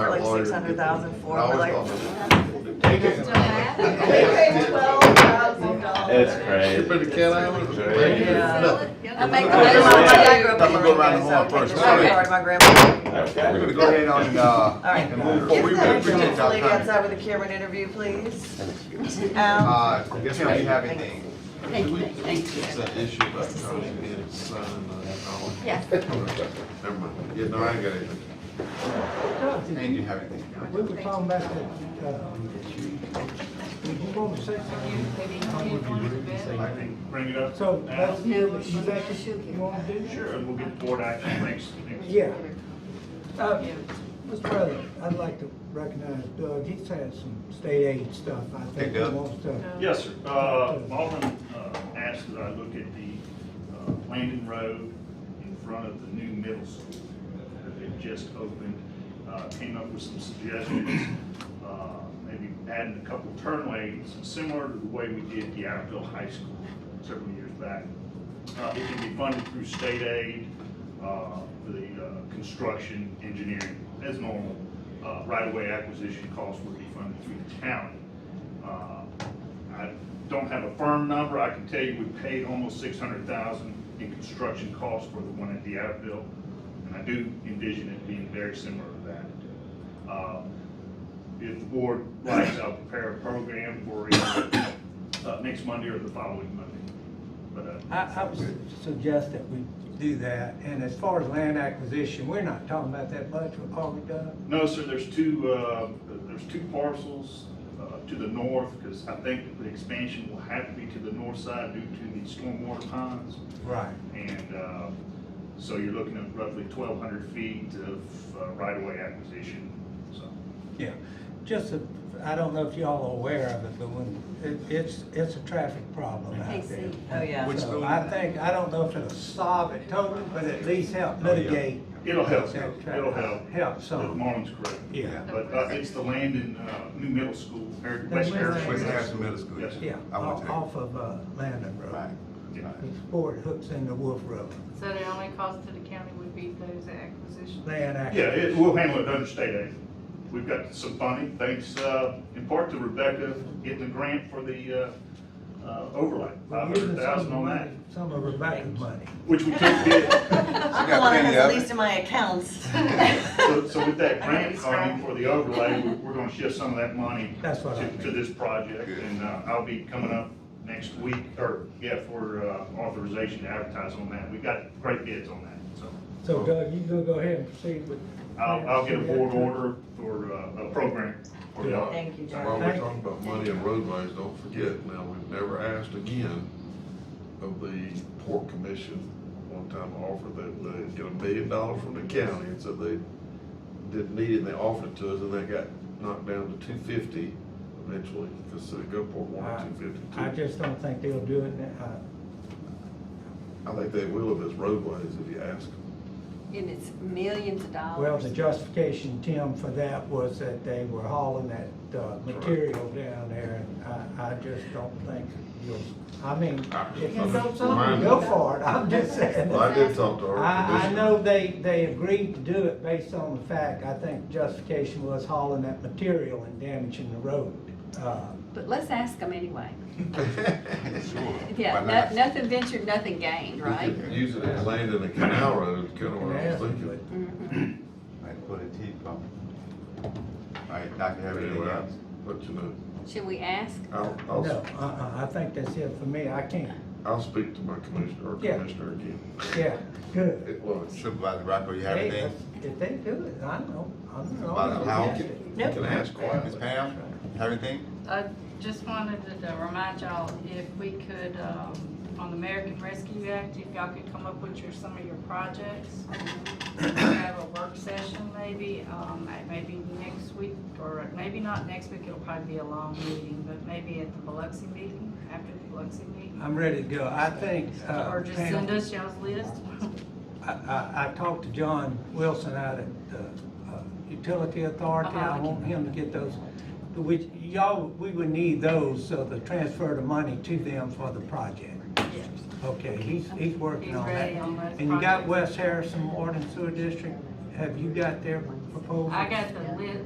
six hundred thousand for, we're like, Take it. They paid twelve thousand It's dollars. crazy. Put the cat out of it. Right. yeah. I make a My dad motion. grew up in Lorraine, Let me go around so the horn I can't first. just- sorry, my grandma. We're gonna go ahead on, uh, All right. and move Is forward. We that appreciate gentleman y'all coming. outside with a camera and interview, please? Al, Uh, yes, ma'am, you have anything? Thank you, thank you. It's an issue about trying to get it signed, uh, and Yes. all. Never mind. Yeah, no, I ain't got anything. And you have anything? We were talking about that, uh, did you want to say something? Bring it up. So, now? that's, is that what you want to do? Sure, and we'll get board action next, next. Yeah. Uh, Mr. President, I'd like to recognize Doug, he's had some state aid stuff, I Hey, think he Doug. wants to. Yes, sir. Uh, Alvin uh, asked that I look at the uh, Landon Road in front of the new middle school that they've just opened. Uh, Came up with some suggestions, uh, maybe adding a couple turn lanes, similar to the way we did the Iredale High School several years back. Uh, It can be funded through state aid, uh, for the uh, construction engineering as normal. Uh, Right-of-way acquisition costs would be funded through the county. Uh, I don't have a firm number, I can tell you we paid almost six hundred thousand in construction costs for the one at Deattville, and I do envision it being very similar to that. Uh, If the board likes, I'll prepare a program for either, uh, next Monday or the following Monday, but, uh, I, I would suggest that we do that, and as far as land acquisition, we're not talking about that much, are we, Doug? No, sir, there's two, uh, there's two parcels uh, to the north, because I think the expansion will have to be to the north side due to the stormwater ponds. Right. And uh, so you're looking at roughly 1,200 feet of uh, right-of-way acquisition, so. Yeah, just, a- I don't know if y'all are aware of it, but when, it, it's, it's a traffic problem out there. Oh, yeah. Which So school? I think, I don't know if it'll solve it totally, but at least help Oh, yeah. mitigate. It'll help, that it'll help. traffic. Help If some, Marlon's correct. yeah, But uh, it's the land in uh, New Middle School, or West Harrison. West Harrison Middle School. Yes, sir. yeah, I went off to that. off of uh, Landon Right. Road. Yeah. It's Ford hooks into Wolf Road, So the only cost to the county would be those acquisitions? land Yeah, acquisition. it, we'll handle it under state aid. We've got some funding, thanks, uh, in part to Rebecca getting the grant for the, uh, uh, overlay, We're five using hundred some of thousand the on that, money- Some of Rebecca's money. which we took bid. I'm the got one that plenty has the of it. least in my accounts. So, so with that I know grant it's funding right. for the overlay, we're, we're gonna shift some of that money That's what I to, to mean. this project, Good. and, uh, I'll be coming up next week, or, yeah, for, uh, authorization to advertise on that. We got great bids on that, so. So Doug, you gonna go ahead and proceed with? I'll, I'll get a board order for, uh, a program for y'all. Thank you, John. While we're talking about money and roadways, don't forget, now, we've never asked again of the Port Commission, one time offered that they get a million dollars from the county, and so they didn't need it, and they offered it to us, and that got knocked down to two fifty eventually, because City Gulfport I- wanted two fifty-two. I just don't think they'll do it now. Uh, I think they will if it's roadways, if you ask them. And it's millions of dollars. Well, the justification, Tim, for that was that they were hauling that uh, material down there, and I, I just don't think you'll, I mean, if you know something, go for it, I'm just saying. Well, I did talk to our I, I commissioner. know they, they agreed to do it based on the fact, I think justification was hauling that material and damaging the road. Uh, But let's ask them anyway. Sure. Yeah, Why not? no- nothing ventured, nothing gained, right? We could Use it as land in a canal road, kind of what I was thinking. Mm-hmm. Like put a T pump. All right, Doc, you have anything Anyway, else? but you know, Should we ask? I'll, No, I'll, uh-uh, I think that's it for me, I can't, I'll speak to my commissioner, or Yeah. commissioner again. yeah, good. It was. Supervisor Rocco, you have Hey, anything? that's- If they do it, I know, I'm About not. how- You Can ask Ms. quietly. Pam, have anything? I just wanted to uh, remind y'all, if we could, um, on the American Rescue Act, if y'all could come up with your, some of your projects. Have a work session maybe, um, at maybe next week, or maybe not next week, it'll probably be a long meeting, but maybe at the Biloxi meeting, after the Biloxi meeting. I'm ready to go. I think, uh, Or just send Pam, us y'all's list. I, I, I talked to John Wilson out at the uh, Utility Authority. I Uh-huh. want him to get those, which y'all, we would need those, so the transfer the money to them for the project. Okay, he's, he's working He's on that. ready on those And you got projects. West Harrison Water and Sewer District, have you got their proposal? I got the list,